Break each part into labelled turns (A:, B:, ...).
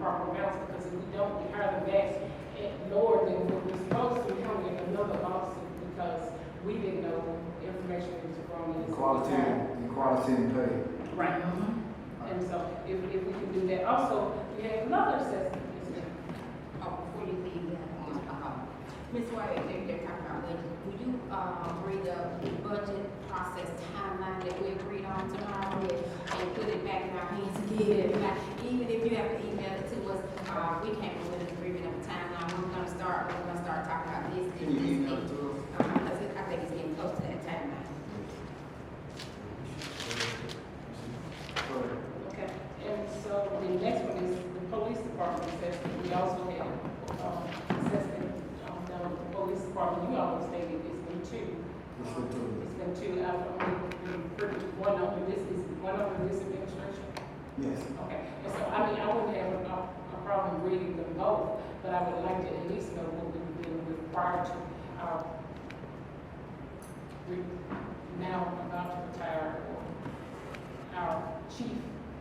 A: proper amounts, because if we don't, we hire them back at lower than what we're supposed to, we don't get another lawsuit, because we didn't know information was wrong. at the
B: Equality,
A: time.
B: equality in pay.
A: Right. And so, if, if we can do that, also, we have another assessment, Ms. Green.
C: Oh, before you leave, uh, uh, Ms. White, if you're talking about budget, will you, uh, bring up the budget process timeline that we agreed on tomorrow and and put it back in our hands again? Like, even if you have to email it to us, uh, we came up with an agreement of timeline, we're gonna start, we're gonna start talking about this, this,
B: Can you
C: this.
B: email it to us?
C: Uh, cause it- I think it's getting close to that timeline.
A: Okay, and so the next one is the police department assessment. We also had, um, assessment, um, done with the police department. You always stated it's been two.
B: It's been two.
A: It's been two. I've only been pretty- one over this, is one over this administration.
B: Yes.
A: Okay, and so, I mean, I wouldn't have a, a problem reading them both, but I would like to at least know what we were dealing with prior to, uh, re- now about to retire, or our chief,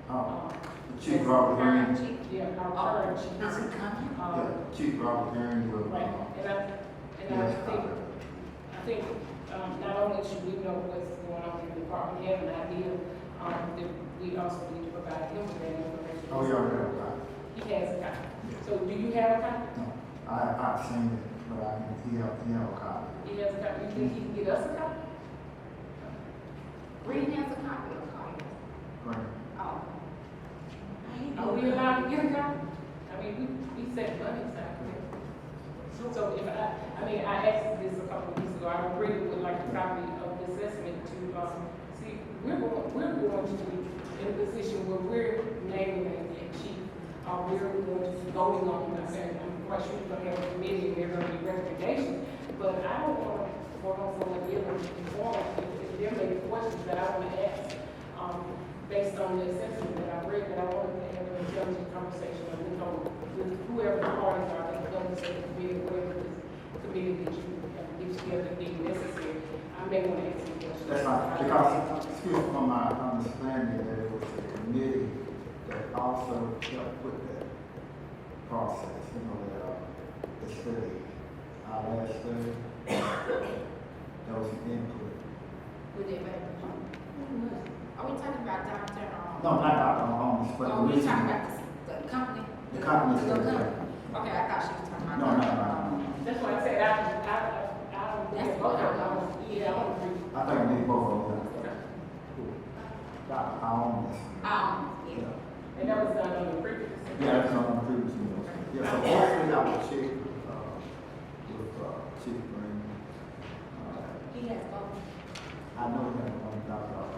B: Uh,
A: um,
B: the Chief Robert
C: Current
B: Green,
C: chief, Oh,
A: yeah, our current chief.
B: yeah,
A: Um,
B: Chief Robert Green will,
A: Right,
B: uh,
A: and I, and I
B: yes,
A: think, I think, um, not only should we know what's going on in the department, have an idea, um, that we also need to provide him with that information.
B: oh, y'all read about it?
A: He has a copy.
B: Yes.
A: So do you have a copy?
B: No, I, I've seen it, but I, he have, he have a copy.
A: He has a copy. You think he can get us a copy?
C: Reed has a copy of it.
B: Right.
C: Oh.
A: Are Oh, we allowed to get a copy? I mean, we, we set money aside for that. So if I, I mean, I asked this a couple of weeks ago, I really would like a copy of the assessment to, um, see, we're, go- we're going to be in a position where we're naming a a chief, uh, we're going to be voting on, it. I said, I'm quite sure we're gonna have a committee, and there are gonna be recommendations, but I don't wanna work on someone else's form, if there may be questions that I wanna ask, um, based on the assessment that I read, but I wanted to have an intelligent conversation with, um, with whoever the parties are, that governs the committee, whatever this committee that you have to get together, being necessary, I may want to ask some questions.
B: That's right, because, excuse me, from my understanding, that it was the committee that also helped with that process, you know, that, uh, the study, our last study. That was an input.
C: Would it be? Are we talking about Dr. Um?
B: No, not Dr. Holmes, but.
C: Oh, we
B: the-
C: talking about the, the company?
B: The company's
C: The
B: still
C: company.
B: there.
C: Okay, I thought she was talking about.
B: No, no, no,
A: That's why I said, I, I, I don't,
C: That's
A: yeah,
C: what I
A: I
C: was-
A: don't, yeah, I don't agree.
B: no. I think we both of them.
A: Okay.
B: Dr. Holmes.
C: Um,
B: Yeah,
C: yeah.
A: And that was done on the previous.
B: Yeah, that's on the previous meeting. Yeah, so hopefully I will check, uh, with, uh, Chief Green. Uh,
C: He has both.
B: I know that one doctor.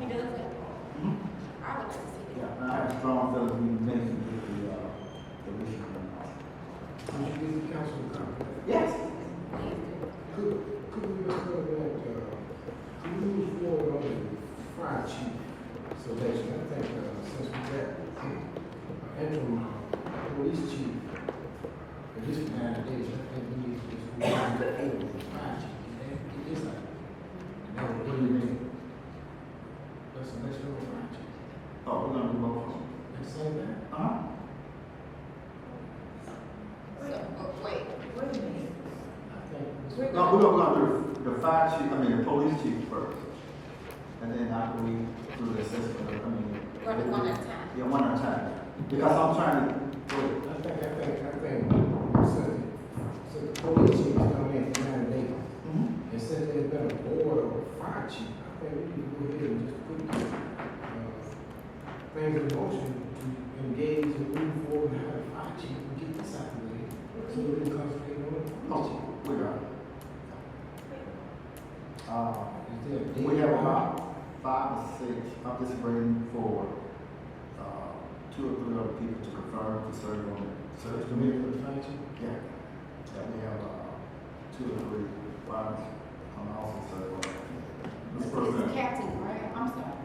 C: He does have both.
B: Mm-hmm.
C: I would like to see
B: Yeah,
C: that.
B: I have strong feelings we mentioned with the, uh, the mission.
D: Would you give the council a copy?
B: Yes.
C: Please do.
D: Could, could we refer that, uh, move forward on the fire chief selection? I think, uh, since we got uh, interim police chief, at least for nine days, I think we need to just move on to the fire chief. It is like, no, what do you mean? Let's selection of fire chief.
B: Oh, we're gonna do both.
D: Let's say that.
B: Uh-huh.
C: So, oh, wait. Wait a minute.
D: I think.
C: We're
B: No, we're
C: gonna,
B: gonna do the fire chief, I mean, the police chief first. And then after we do the assessment, I mean.
C: We're gonna do one at a time.
B: Yeah, one at a time. Because I'm trying to, wait,
D: I think, I think, I think, so, so the police chief come in for nine days,
B: Mm-hmm.
D: and since there's been a board of fire chief, I think we need to go ahead and just put the, uh, things in motion to engage and move forward and have a fire chief and get this out of the way, so we can concentrate on the police
B: oh,
D: chief.
B: we got it. Uh,
D: Is there a date?
B: we have about five or six, I'm just waiting for, uh, two or three other people to confirm to serve on the
D: So
B: search
D: it's the middle
B: committee.
D: of the fire chief?
B: Yeah, yeah, we have, uh, two or three, five, I'm also serving on that. Mr.
C: it's
B: President.
C: Captain Brown, I'm sorry.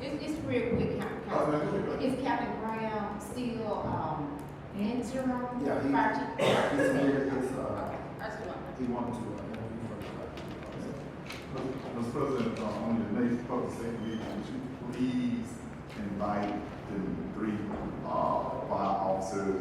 C: It's, it's real quick, Cap-
B: Oh,
C: Captain.
B: that's okay.
C: Is Captain Brown still, um,
B: Mm-hmm.
C: interim?
B: Yeah, he-
C: Fire chief?
B: He submitted his, uh,
C: Okay, I just want
B: he wanted to, uh, interview for the.
E: Mr. President, uh, on your next public safety meeting, would you please invite the three, uh, fire officers
B: to